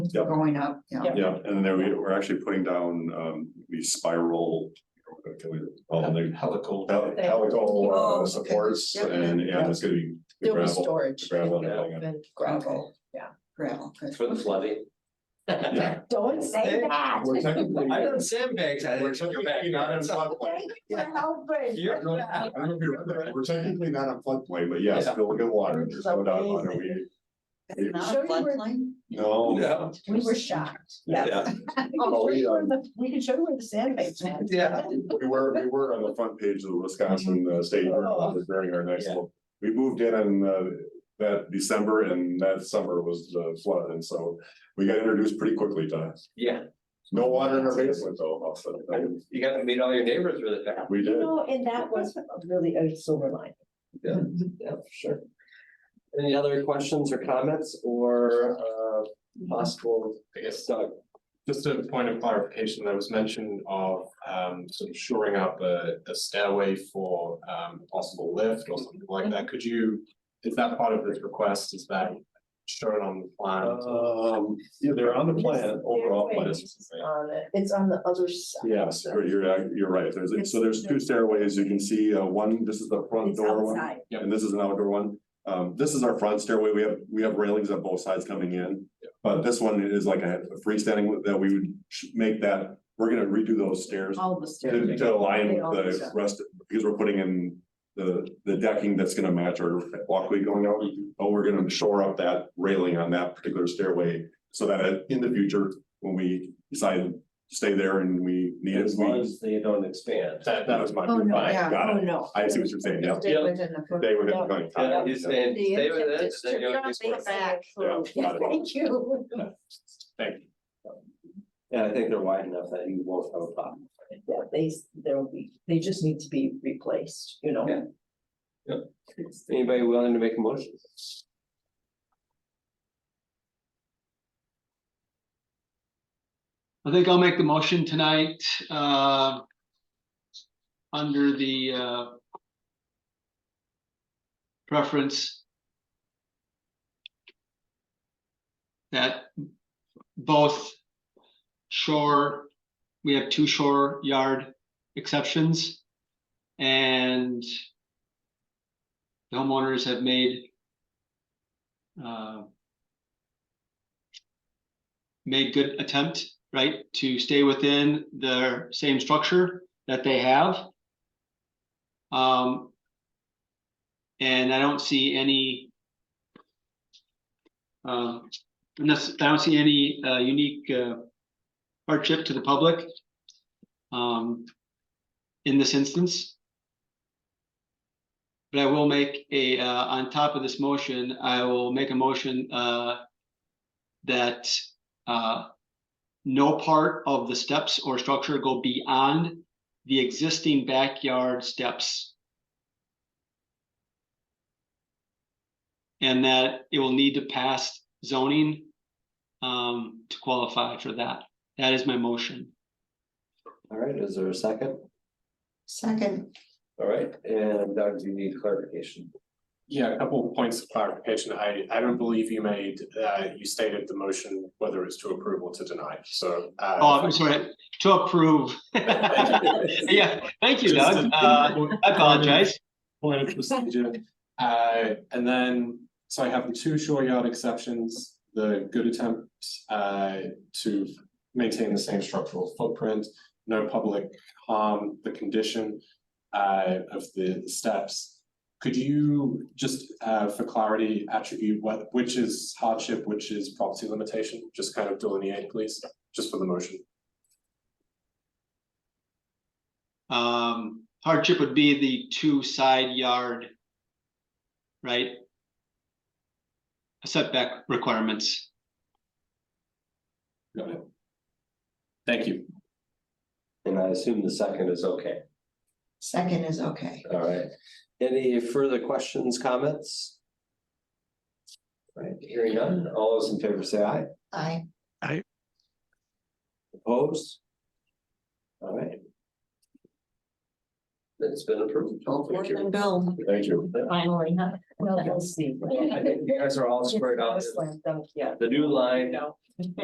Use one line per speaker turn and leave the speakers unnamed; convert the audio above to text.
Yep.
going up, yeah.
Yep.
Yeah, and then there we, we're actually putting down, um, the spiral. you know, can we- Oh, the
Helical.
hel-
They-
Oh,
helical uh,
okay.
supports
Yep.
and, yeah, it's gonna be the
There'll be
gravel, the
storage
gravel and
Yeah.
everything.
and gravel.
Gravel. good.
For the flooding.
Yeah.
Don't say
Hey,
that.
We're technically,
I
we're
heard sandbags. I didn't check your back.
technically not in floodplain.
You're helping.
You're not-
I don't know if you remember that. We're technically not in floodplain, but yes,
Yeah.
still look at water. There's no doubt about it. We,
It's not
Show
a
you where-
floodplain.
no.
No.
We were shocked.
Yeah,
Oh,
Oh,
show you
yeah.
where the- We can show you where the sandbags went.
yeah.
We were, we were on the front page of the Wisconsin uh, State
Oh,
Bird Office during our next
Yeah.
one. We moved in in uh, that December and that summer was the flood, and so we got introduced pretty quickly to.
Yeah,
No water in our basement though, also.
you gotta meet all your neighbors really fast.
We
You
did.
know, and that was really a silver line.
Yeah, for sure. Any other questions or comments or uh possible, I guess, uh, Doug?
Just a point of clarification, there was mention of um sort of shoring up a a stairway for um possible lift or something like that. Could you? Is that part of this request? Is that shown on the plan?
Um, yeah, they're on the plan, overall plan.
Stairways on it. It's on the other side.
Yes, you're, uh, you're, you're right. There's, so there's two stairways. You can see, uh, one, this is the front
It's
door one.
outside.
Yep.
And this is an outdoor one. Um, this is our front stairway. We have, we have railings on both sides coming in. But this one is like a freestanding one that we would sh- make that, we're gonna redo those stairs
All the
to,
stairs.
to align
They all
with the
start.
rest, because we're putting in the, the decking that's gonna match our walkway going out. But we're gonna shore up that railing on that particular stairway so that it- in the future, when we decide to stay there and we need it,
As long
we.
as they don't expand.
That, that was my.
Oh, no,
Fine,
yeah.
Got
Oh,
it.
no.
I see what you're saying, yeah.
Stay
Yeah.
within the foot-
They were
Yeah.
going.
Yeah, you stand,
The
stay with it.
intent
then
is
you'll
to
just work.
drop it back.
Yeah.
Yeah, Thank you.
Thank you.
And I think they're wide enough that you won't have a problem.
Yeah, they, there'll be, they just need to be replaced, you know?
Yeah. Anybody willing to make a motion?
I think I'll make the motion tonight, uh. Under the, uh. Preference. That both shore, we have two shore yard exceptions. And. the Homeowners have made. Uh. Made good attempt right, to stay within the same structure that they have. Um, and I don't see any uh, unless, I don't see any, uh, unique, uh, hardship to the public um, in this instance. But I will make a, uh, on top of this motion, I will make a motion, uh, that, uh, no part of the steps or structure go beyond the existing backyard steps. And that it will need to pass zoning um, to qualify for that. That is my motion.
All right, is there a second?
Second,
All right, and Doug, do you need clarification?
Yeah, a couple of points of clarification. I I don't believe you made, uh you stated the motion, whether it's to approve or to deny, so. uh,
Oh, I'm sorry, to approve. Yeah, thank you, Doug. Uh, I apologize.
Point of procedure. Uh, and then, so I have the two shore yard exceptions, the good attempt, uh, to maintain the same structural footprint, no public harm, the condition, uh, of the steps. Could you just, uh, for clarity, attribute what, which is hardship, which is property limitation? Just kind of delineate, please, just for the motion.
Um, hardship would be the two side yard. Right? Setback requirements.
Got it. Thank you.
And I assume the second is okay.
second is okay.
All right. Any further questions, comments? All Right, hearing none. All those in favor say aye.
I,
Opposed? All right. It's been approved. Thank
Orson
you.
Bill,
Thank you.
Finally, huh? Well, we'll see.
I think you guys are all squared out.
Slam dunk, Yeah.
The new line.
No.